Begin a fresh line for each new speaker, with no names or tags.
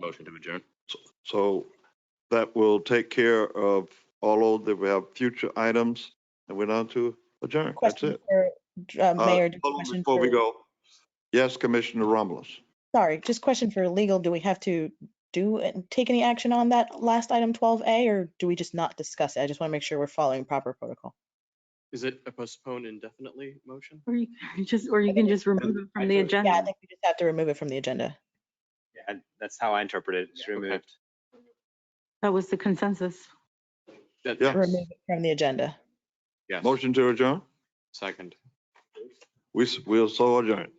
Motion to adjourn.
So that will take care of all of, that we have future items and we're down to adjourn. That's
Question
it.
for, uh,
Uh,
Mayor, just
hold on
question
Before we
for-
go, yes, Commissioner Romulus.
sorry, just question for legal. Do we have to do, and take any action on that last item 12A or do we just not discuss it? I just want to make sure we're following proper protocol.
Is it a postponed indefinitely motion?
Or you you just, or you can just remove it
I
from the
think-
Yeah, I
agenda.
think we just have to remove it from the agenda.
Yeah, that's how I interpret it. It's
okay.
removed.
That was the consensus.
That-
Yeah.
Remove it from the agenda.
Yes,
Motion to adjourn?
second.
We, s- we'll so adjourn.